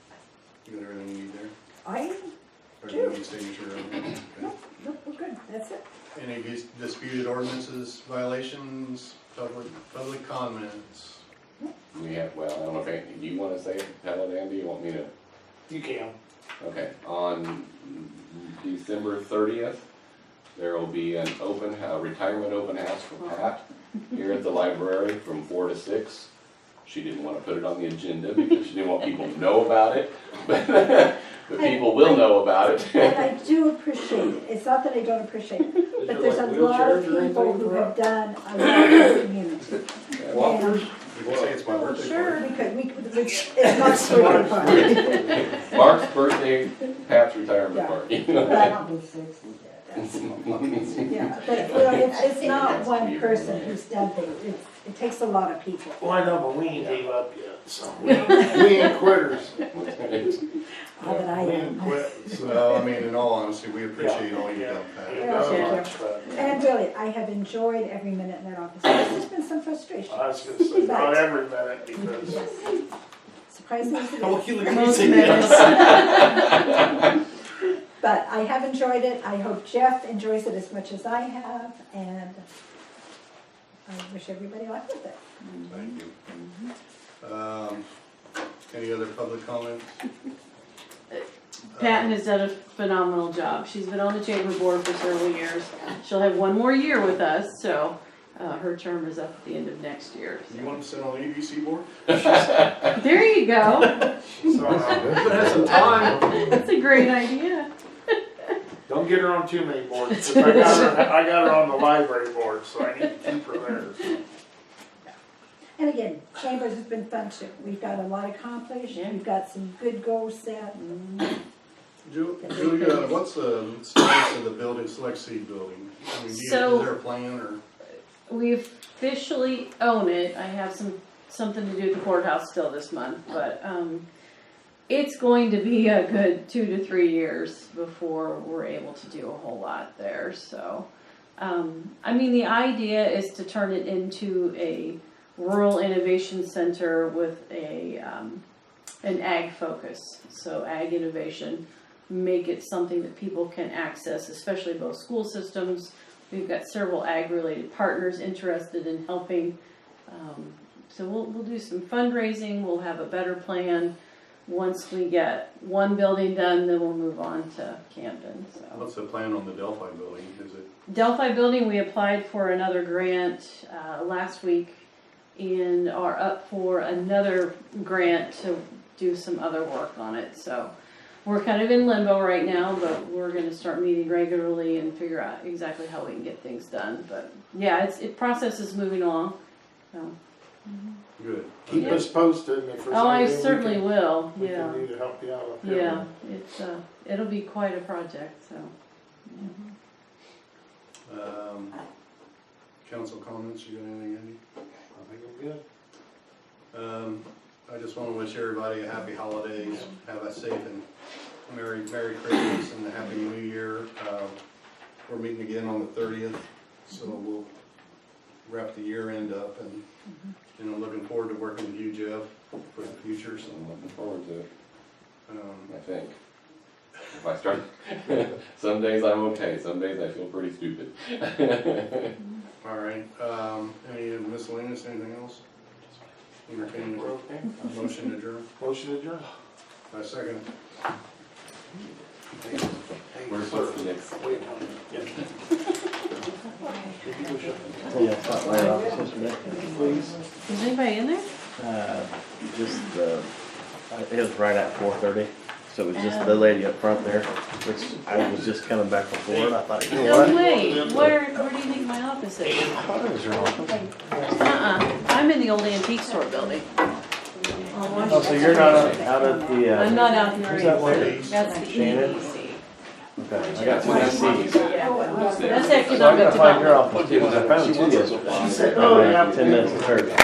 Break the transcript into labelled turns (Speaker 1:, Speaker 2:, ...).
Speaker 1: You got everything you need there?
Speaker 2: I,
Speaker 1: Or do
Speaker 2: Sure.
Speaker 1: you need signature? Okay.
Speaker 2: no, no, we're good, that's it.
Speaker 1: Any dis- disputed ordinances, violations, public, public comments?
Speaker 3: Yeah, well, I don't know if, Andy- do you wanna say, it? tell it, Andy, you want me to?
Speaker 4: You can.
Speaker 3: Okay, on December thirtieth, there will be an open, a retirement open house for Pat here at the library from four to six. She didn't wanna put it on the agenda because she didn't want people to know about it, but, but people will know about
Speaker 2: And
Speaker 3: it.
Speaker 2: I do appreciate it, it's not that I don't appreciate it, but there's a lot of people who have done a lot for the community.
Speaker 4: Walkers?
Speaker 1: You can say it's
Speaker 2: Oh,
Speaker 1: my birthday party.
Speaker 2: We could, we, could- it's it's not sort of fun,
Speaker 3: Mark's birthday, Pat's retirement
Speaker 2: Yeah.
Speaker 3: party.
Speaker 2: but I don't
Speaker 3: That's
Speaker 2: Yeah, but you know, it's, it's not one person who's done things, it's, it takes a lot of people.
Speaker 4: Well, I know, but we ain't gave up yet, so. We ain't quitters.
Speaker 2: All uh, that I
Speaker 4: Yeah,
Speaker 2: am.
Speaker 1: So, I mean, in all honesty, we appreciate all you've done, Pat.
Speaker 2: Yeah, sure.
Speaker 4: I
Speaker 2: And really, I have enjoyed every minute in that office, there's been some frustration,
Speaker 4: was gonna say, not every minute, because
Speaker 2: surprisingly.
Speaker 5: Most minutes.
Speaker 2: But I have enjoyed it, I hope Jeff enjoys it as much as I have, and I wish everybody luck with it.
Speaker 1: Thank you. Um, Any other public comments?
Speaker 5: Patton has done a phenomenal job. She's been on the chamber board for several years. She'll have one more year with us, so uh, her term is up at the end of next year.
Speaker 1: Uh, You want to sit on the EDC board?
Speaker 5: There you go.
Speaker 4: somehow,
Speaker 1: But that's some time.
Speaker 5: That's a great idea.
Speaker 4: don't get her on too many boards, 'cause I got her, I got her on the library board, so I need to keep her there.
Speaker 2: And again, Chambers has been fun too, we've got a lot accomplished,
Speaker 5: Yeah.
Speaker 2: we've got some good goals set,
Speaker 1: Ju- Julia, what's the status of the building, Select Seed building? I mean, do you-
Speaker 5: So-
Speaker 1: is there a plan or?
Speaker 5: We officially own it. I have some, something to do at the courthouse still this month, but um, it's going to be a good two to three years before we're able to do a whole lot there, so. Um, I mean, the idea is to turn it into a rural innovation center with a, um, an ag focus, so ag innovation. Make it something that people can access, especially both school systems. We've got several ag-related partners interested in helping. Um, so we'll, we'll do some fundraising, we'll have a better plan. Once we get one building done, then we'll move on to Camden, so.
Speaker 1: What's the plan on the Delphi building? Is it,
Speaker 5: Delphi Building, we applied for another grant uh, last week and are up for another grant to do some other work on it. So we're kind of in limbo right now, but we're going to start meeting regularly and figure out exactly how we can get things done. But yeah, it's, it process is moving along. So.
Speaker 1: good.
Speaker 4: Keep us posted if there's
Speaker 5: Oh, I
Speaker 4: anything we
Speaker 5: certainly
Speaker 4: can-
Speaker 5: will.
Speaker 4: We
Speaker 5: yeah,
Speaker 4: can do to help you out up
Speaker 5: yeah.
Speaker 4: here.
Speaker 5: It's uh, it'll be quite a project. So
Speaker 1: Um, Council comments, you got anything, Andy?
Speaker 4: I think I'm good.
Speaker 1: Um, I just want to wish everybody a happy holidays, have a safe and merry, merry Christmas and a happy new year. Uh, We're meeting again on the thirtieth, so we'll wrap the year end up and, you know, looking forward to working with you, Jeff, for the future, so.
Speaker 3: I'm looking forward to it.
Speaker 1: um,
Speaker 3: I think. If I start, some days I'm okay, some days I feel pretty stupid.
Speaker 1: All right, um, any miscellaneous, anything else? Entertaining,
Speaker 4: We're okay.
Speaker 1: motion adjourned,
Speaker 4: Motion adjourned.
Speaker 1: I second. it.
Speaker 3: Where's, what's the next?
Speaker 4: Wait. Yeah.
Speaker 6: Yeah, it's not right off, it's just,
Speaker 4: Please.
Speaker 5: is anybody in there?
Speaker 6: uh, just, uh, it was right at four thirty, so it was just the lady up front there, which I was just coming back from Florida, I thought, you know
Speaker 5: No
Speaker 6: what?
Speaker 5: way. Where where do you think my office is?
Speaker 6: I thought it was your office.
Speaker 5: Uh-uh, I'm in the old antique store building.
Speaker 6: Oh, so you're not out at the, uh?
Speaker 5: I'm not out here
Speaker 6: Who's that
Speaker 5: either.
Speaker 6: lady?
Speaker 5: That's the
Speaker 6: Shannon?
Speaker 5: EDC.
Speaker 6: Okay, I got
Speaker 3: When I
Speaker 6: two
Speaker 3: see you.
Speaker 6: seats.
Speaker 2: Oh,
Speaker 5: Yeah,
Speaker 3: Who's there?
Speaker 5: that's
Speaker 6: So I
Speaker 5: economic
Speaker 6: gotta find your
Speaker 5: development.
Speaker 6: office too, 'cause I found two yesterday.
Speaker 4: She said, "Oh, yeah."
Speaker 6: Ten minutes to thirty.